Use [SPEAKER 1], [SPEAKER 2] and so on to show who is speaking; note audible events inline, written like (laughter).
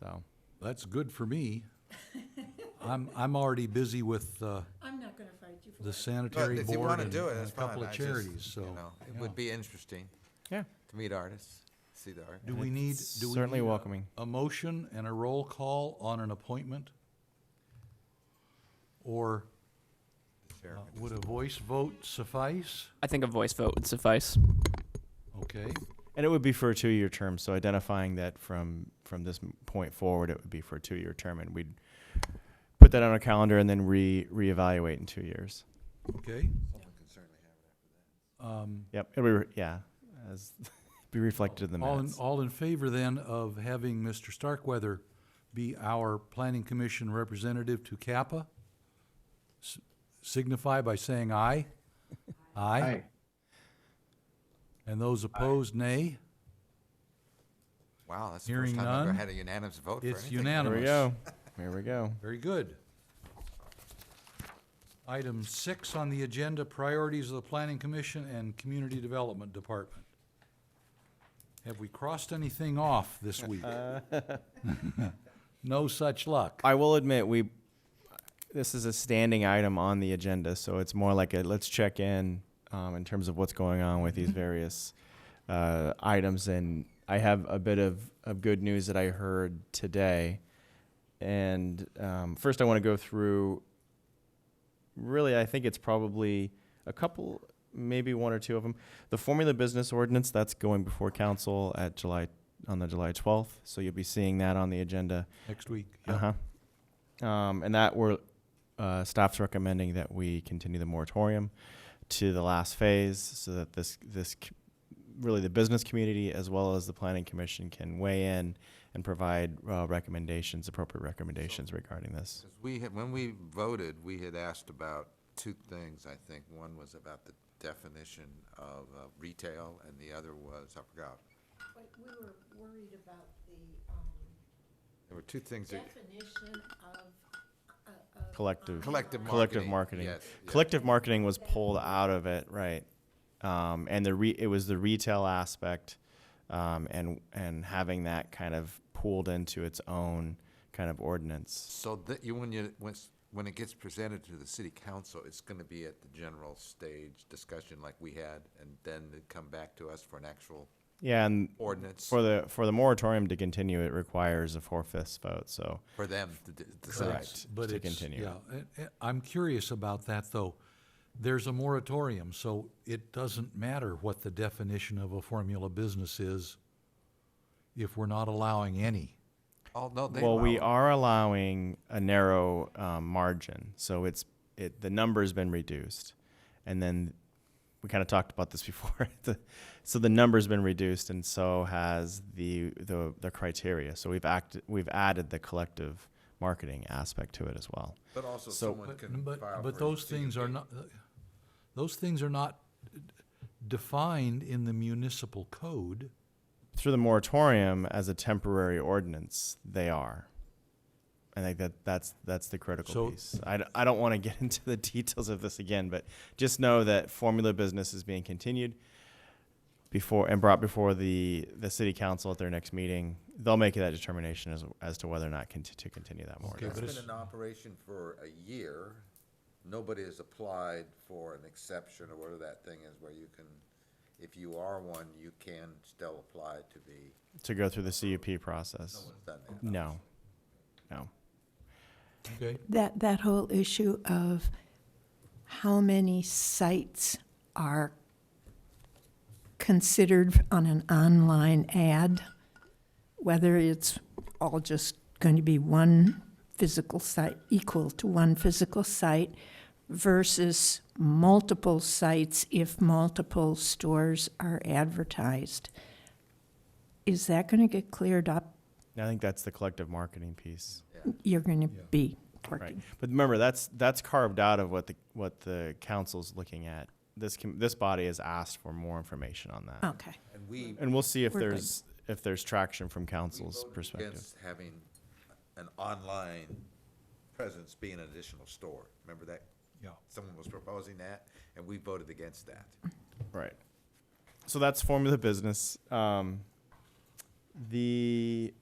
[SPEAKER 1] So,
[SPEAKER 2] That's good for me. I'm, I'm already busy with, uh,
[SPEAKER 3] I'm not gonna fight you for
[SPEAKER 2] the
[SPEAKER 3] that.
[SPEAKER 2] sanitary
[SPEAKER 4] But if you
[SPEAKER 2] board
[SPEAKER 4] wanna
[SPEAKER 2] and
[SPEAKER 4] do it,
[SPEAKER 2] and a
[SPEAKER 4] that's fine.
[SPEAKER 2] couple
[SPEAKER 4] I
[SPEAKER 2] of
[SPEAKER 4] just,
[SPEAKER 2] charities, so.
[SPEAKER 4] you know, It
[SPEAKER 2] yeah.
[SPEAKER 4] would be interesting
[SPEAKER 1] yeah,
[SPEAKER 4] to meet artists, see the art.
[SPEAKER 2] Do we need,
[SPEAKER 1] It's
[SPEAKER 2] do we
[SPEAKER 1] certainly
[SPEAKER 2] need a-
[SPEAKER 1] welcoming.
[SPEAKER 2] A motion and a roll call on an appointment? Or uh,
[SPEAKER 4] Sure.
[SPEAKER 2] would a voice vote suffice?
[SPEAKER 5] I think a voice vote would suffice.
[SPEAKER 2] Okay,
[SPEAKER 1] and it would be for a two-year term. So identifying that from from this m- point forward, it would be for a two-year term, and we'd put that on our calendar and then re reevaluate in two years.
[SPEAKER 2] okay. Um,
[SPEAKER 1] Yep, it'll be re- yeah, as (laughs) be reflected in the
[SPEAKER 2] All in,
[SPEAKER 1] minutes.
[SPEAKER 2] all in favor then of having Mr. Starkweather be our planning commission representative to Kappa? S- Signify by saying aye. Aye. And those opposed, nay.
[SPEAKER 4] Wow, that's the
[SPEAKER 2] Hearing
[SPEAKER 4] first time I've ever
[SPEAKER 2] none.
[SPEAKER 4] had a unanimous vote for anything.
[SPEAKER 2] It's
[SPEAKER 1] There we
[SPEAKER 2] unanimous.
[SPEAKER 1] go. There we go.
[SPEAKER 2] Very good. Item six on the agenda, priorities of the planning commission and community development department. Have we crossed anything off this
[SPEAKER 1] (laughs)
[SPEAKER 2] week? (laughs) No such luck.
[SPEAKER 1] I will admit we this is a standing item on the agenda, so it's more like a let's check in um, in terms of what's going on with these various uh, items. And I have a bit of, of good news that I heard today. And um, first, I want to go through. Really, I think it's probably a couple, maybe one or two of them. The formula business ordinance that's going before council at July on the July twelfth, so you'll be seeing that on the agenda.
[SPEAKER 2] Next week. yeah.
[SPEAKER 1] Uh huh. Um, and that we're uh, staff's recommending that we continue the moratorium to the last phase, so that this this c- really the business community as well as the planning commission can weigh in and provide uh, recommendations, appropriate recommendations regarding this.
[SPEAKER 4] Because we had, when we voted, we had asked about two things, I think. One was about the definition of uh, retail, and the other was, I forgot.
[SPEAKER 3] But we were worried about the, um,
[SPEAKER 4] There were two things that,
[SPEAKER 3] definition of, uh, of.
[SPEAKER 1] Collective.
[SPEAKER 4] collective marketing.
[SPEAKER 1] Collective marketing.
[SPEAKER 4] Yes, yes.
[SPEAKER 1] Collective marketing was pulled out of it, right? Um, and the re- it was the retail aspect, um, and and having that kind of pooled into its own kind of ordinance.
[SPEAKER 4] So that, you, when you, when, s- when it gets presented to the city council, it's gonna be at the general stage discussion like we had, and then they come back to us for an actual
[SPEAKER 1] Yeah, and
[SPEAKER 4] ordinance
[SPEAKER 1] for the for the moratorium to continue, it requires a four fifths vote. So
[SPEAKER 4] for them to d- decide.
[SPEAKER 1] Correct.
[SPEAKER 2] But
[SPEAKER 1] to
[SPEAKER 2] it's,
[SPEAKER 1] continue.
[SPEAKER 2] yeah, I- I- I'm curious about that, though. There's a moratorium, so it doesn't matter what the definition of a formula business is if we're not allowing any.
[SPEAKER 4] Oh, no, they.
[SPEAKER 1] well, we
[SPEAKER 4] allow-
[SPEAKER 1] are allowing a narrow um, margin, so it's it the number's been reduced, and then we kind of talked about this (laughs) before. the, so the number's been reduced, and so has the the the criteria. So we've acted we've added the collective marketing aspect to it as well.
[SPEAKER 4] But also
[SPEAKER 1] so-
[SPEAKER 4] someone can
[SPEAKER 2] But- but-
[SPEAKER 4] file
[SPEAKER 2] But
[SPEAKER 4] for
[SPEAKER 2] those things are
[SPEAKER 4] CUP.
[SPEAKER 2] not, uh, those things are not defined in the municipal code.
[SPEAKER 1] through the moratorium as a temporary ordinance, they are. I think that that's that's the critical
[SPEAKER 2] So-
[SPEAKER 1] piece. I, d- I don't want to get (laughs) into the details of this again, but just know that formula business is being continued before and brought before the the city council at their next meeting. They'll make that determination as as to whether or not conti- to continue that moratorium.
[SPEAKER 2] but
[SPEAKER 4] That's
[SPEAKER 2] it's-
[SPEAKER 4] been in operation for a year. Nobody has applied for an exception or whatever that thing is where you can, if you are one, you can still apply to be,
[SPEAKER 1] To go through the CUP process.
[SPEAKER 4] it's done that.
[SPEAKER 1] No. No.
[SPEAKER 2] Okay,
[SPEAKER 6] That, that whole issue of how many sites are considered on an online ad, whether it's all just going to be one physical site, equal to one physical site, versus multiple sites if multiple stores are advertised. Is that going to get cleared up?
[SPEAKER 1] I think that's the collective marketing piece.
[SPEAKER 6] You're going to
[SPEAKER 2] Yeah.
[SPEAKER 6] be
[SPEAKER 1] Right,
[SPEAKER 6] working.
[SPEAKER 1] but remember, that's, that's carved out of what the, what the council's looking at. This, com- this body has asked for more information on that.
[SPEAKER 6] Okay.
[SPEAKER 4] And we
[SPEAKER 1] And we'll see if
[SPEAKER 6] Oh. We're good.
[SPEAKER 1] there's, if there's traction from
[SPEAKER 4] we
[SPEAKER 1] council's
[SPEAKER 4] voted
[SPEAKER 1] perspective.
[SPEAKER 4] against having an online presence be an additional store. Remember that?
[SPEAKER 2] yeah.
[SPEAKER 4] Someone was proposing that and we voted against that.
[SPEAKER 1] Right. So that's formula business. Um, the